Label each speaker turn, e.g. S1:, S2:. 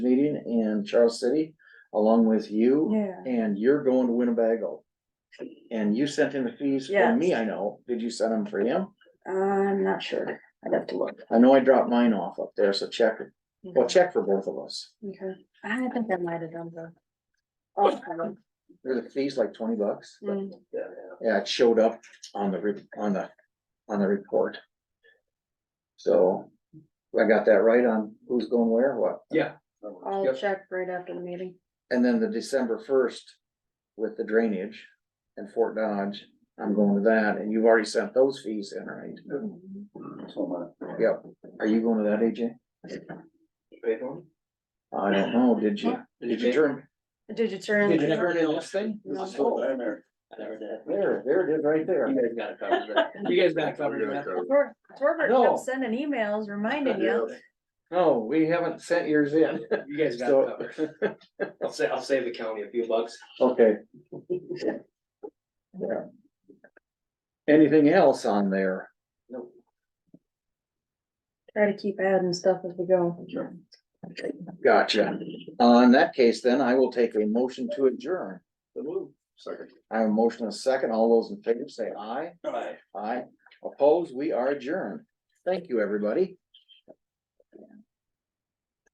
S1: Lane and Charles City, along with you,
S2: Yeah.
S1: and you're going to Winnebago. And you sent in the fees for
S2: Yes.
S1: me, I know. Did you send them for him?
S2: I'm not sure. I'd have to look.
S1: I know I dropped mine off up there, so check,
S2: Mm-hmm.
S1: well, check for both of us.
S2: Okay. I think I might have done the. Oh,
S1: They're the fees like twenty bucks.
S2: mm,
S1: Yeah, it showed up on the, re- on the, on the report. So I got that right on who's going where, what?
S3: Yeah.
S2: I'll
S3: Yep.
S2: check right after the meeting.
S1: And then the December first with the drainage and Fort Dodge, I'm going to that, and you've already sent those fees in, right?
S4: Mm-hmm.
S3: So
S1: Yep, are you going to that, AJ? I don't know, did you, did you turn?
S2: Did you turn?
S4: Did you
S2: the-
S4: never do this thing?
S2: No.
S4: I never did.
S1: There, there it is, right there.
S4: You guys got it covered. then. You guys got it covered. then.
S2: Tor- Torbert
S1: No.
S2: kept sending emails reminding you.
S1: No, Oh, we haven't sent yours in.
S4: You guys got
S1: So-
S4: it covered. I'll say, I'll save the county a few bucks.
S1: Okay. Yeah. Anything else on there?
S2: Try to keep adding stuff as we go.
S1: Gotcha. Uh, in that case, then I will take a motion to adjourn.
S3: Second.
S1: I have a motion and a second. All those in favor say aye.
S3: All right.
S1: Aye. Opposed, we are adjourned. Thank you, everybody.